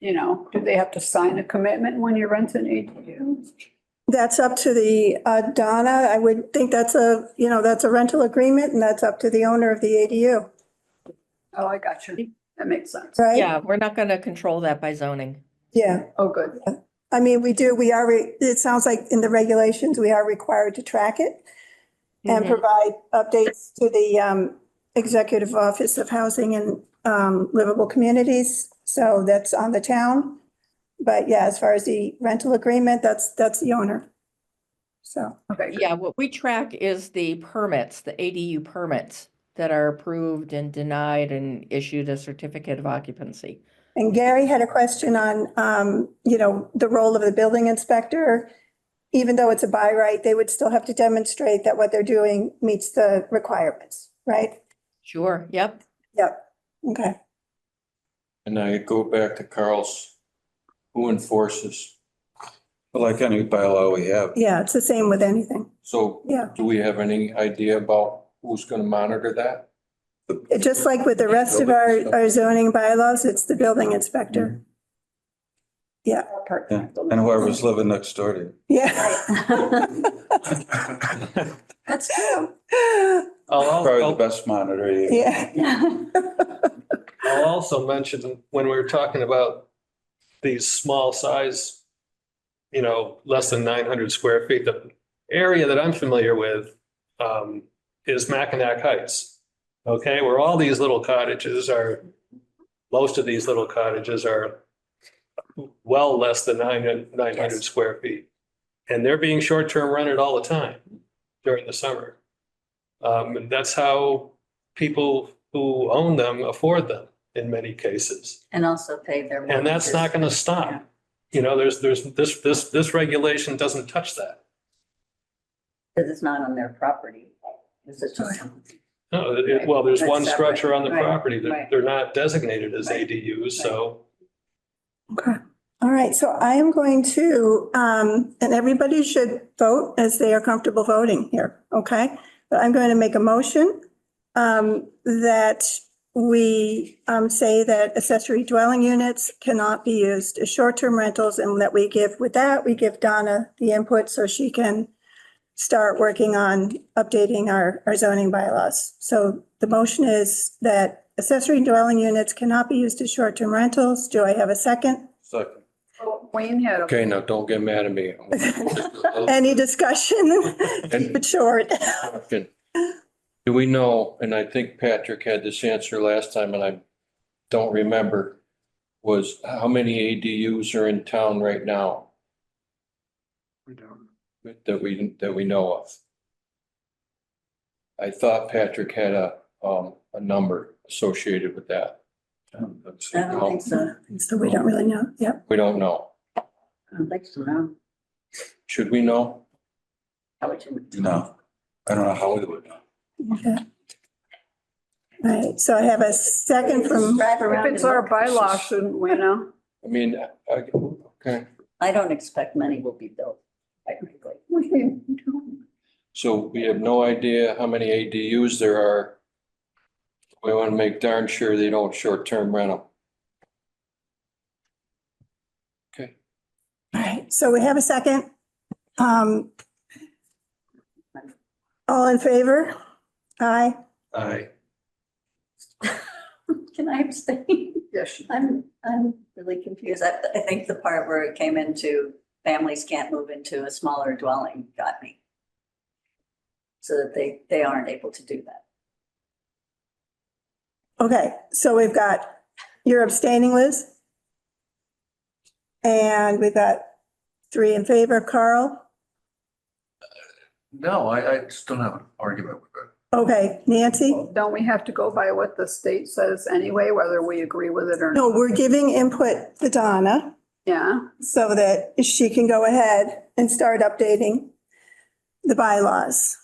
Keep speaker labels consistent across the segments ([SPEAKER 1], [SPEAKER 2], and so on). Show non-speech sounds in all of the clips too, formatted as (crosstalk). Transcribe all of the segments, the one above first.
[SPEAKER 1] you know, do they have to sign a commitment when you rent an ADU?
[SPEAKER 2] That's up to the, uh, Donna, I would think that's a, you know, that's a rental agreement and that's up to the owner of the ADU,
[SPEAKER 1] Oh, I got you. That makes sense.
[SPEAKER 2] right?
[SPEAKER 3] Yeah, we're not gonna control that by zoning.
[SPEAKER 2] Yeah,
[SPEAKER 1] Oh, good.
[SPEAKER 2] I mean, we do, we are, re- it sounds like in the regulations, we are required to track it and
[SPEAKER 3] Mhm.
[SPEAKER 2] provide updates to the, um, Executive Office of Housing and, um, Livable Communities. So that's on the town. But yeah, as far as the rental agreement, that's, that's the owner. So,
[SPEAKER 1] Okay. good.
[SPEAKER 3] Yeah, what we track is the permits, the ADU permits that are approved and denied and issued a certificate of occupancy.
[SPEAKER 2] and Gary had a question on, um, you know, the role of the building inspector. Even though it's a by right, they would still have to demonstrate that what they're doing meets the requirements, right?
[SPEAKER 3] Sure, yep.
[SPEAKER 2] Yep, okay.
[SPEAKER 4] And I go back to Carl's, who enforces?
[SPEAKER 5] Well, Like any bylaw we have,
[SPEAKER 2] Yeah, it's the same with anything.
[SPEAKER 4] So
[SPEAKER 2] Yeah,
[SPEAKER 4] do we have any idea about who's gonna monitor that?
[SPEAKER 2] It- just like with the rest of our, our zoning bylaws, it's the building inspector.
[SPEAKER 5] yeah, and whoever's living next door to
[SPEAKER 1] Mm-hmm.
[SPEAKER 2] Yeah.
[SPEAKER 5] you.
[SPEAKER 1] (laughs) That's true.
[SPEAKER 6] I'll,
[SPEAKER 5] Probably the
[SPEAKER 6] al-
[SPEAKER 5] best monitor you.
[SPEAKER 2] (laughs) Yeah,
[SPEAKER 6] I'll also mention, when we were talking about these small size, you know, less than nine hundred square feet, the area that I'm familiar with um, is Mackinac Heights. Okay, where all these little cottages are, most of these little cottages are well less than nine, nine hundred
[SPEAKER 3] Yes.
[SPEAKER 6] square feet. And they're being short-term rented all the time during the summer. Um, and that's how people who own them afford them in many cases.
[SPEAKER 7] And also pay their.
[SPEAKER 6] And that's not going to
[SPEAKER 7] Yeah.
[SPEAKER 6] stop. You know, there's, there's, this, this, this regulation doesn't touch that.
[SPEAKER 7] Because it's not on their property. This is just.
[SPEAKER 6] No, it- it- well, there's
[SPEAKER 7] That's
[SPEAKER 6] one
[SPEAKER 7] separate.
[SPEAKER 6] structure on the
[SPEAKER 7] Right,
[SPEAKER 6] property that
[SPEAKER 7] right.
[SPEAKER 6] they're not designated as
[SPEAKER 7] Right,
[SPEAKER 6] ADUs, so.
[SPEAKER 2] okay. All right, so I am going to, um, and everybody should vote as they are comfortable voting here, okay? But I'm going to make a motion, um, that we, um, say that accessory dwelling units cannot be used as short-term rentals and that we give, with that, we give Donna the input so she can start working on updating our, our zoning bylaws. So the motion is that accessory dwelling units cannot be used as short-term rentals. Do I have a second?
[SPEAKER 5] Second.
[SPEAKER 1] Wayne had, a-
[SPEAKER 4] Okay, now don't get mad at me.
[SPEAKER 2] Any discussion? Keep
[SPEAKER 4] And-
[SPEAKER 2] it short.
[SPEAKER 4] Do we know, and I think Patrick had this answer last time and I don't remember, was how many ADUs are in town right now? That we, that we know of. I thought Patrick had a, um, a number associated with that.
[SPEAKER 7] I don't think so. I
[SPEAKER 2] So we don't really know. Yep.
[SPEAKER 4] We don't know.
[SPEAKER 7] don't think so, no.
[SPEAKER 4] Should we know?
[SPEAKER 7] How would you?
[SPEAKER 5] (laughs) No, I don't know how we would know.
[SPEAKER 2] Okay. All right, so I have a second from,
[SPEAKER 7] Drive around
[SPEAKER 1] if it's
[SPEAKER 7] and
[SPEAKER 1] our
[SPEAKER 7] look.
[SPEAKER 1] bylaw, shouldn't we know?
[SPEAKER 4] I mean, I, okay,
[SPEAKER 7] I don't expect many will be built, quite frankly.
[SPEAKER 1] (laughs) We can do it.
[SPEAKER 4] so we have no idea how many ADUs there are. We want to make darn sure they don't short-term rental.
[SPEAKER 2] all right, so we have a second. Um, All in favor? Aye.
[SPEAKER 5] I,
[SPEAKER 7] Can I abstain?
[SPEAKER 1] Yes, you-
[SPEAKER 7] I'm, I'm really confused. I, I think the part where it came into families can't move into a smaller dwelling got me. So that they, they aren't able to do that.
[SPEAKER 2] Okay, so we've got, you're abstaining, Liz? And we've got three in favor, Carl?
[SPEAKER 8] No, I, I just don't have an argument with it.
[SPEAKER 2] Okay, Nancy?
[SPEAKER 1] don't we have to go by what the state says anyway, whether we agree with it or not?
[SPEAKER 2] No, we're giving input to Donna
[SPEAKER 1] Yeah,
[SPEAKER 2] so that she can go ahead and start updating the bylaws.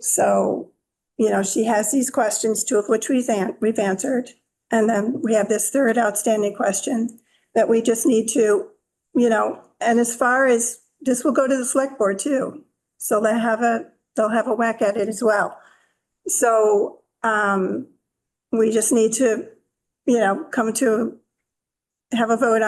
[SPEAKER 2] So, you know, she has these questions, two of which we've, an- we've answered. And then we have this third outstanding question that we just need to, you know, and as far as, this will go to the select board too. So they have a, they'll have a whack at it as well. So, um, we just need to, you know, come to have a vote on.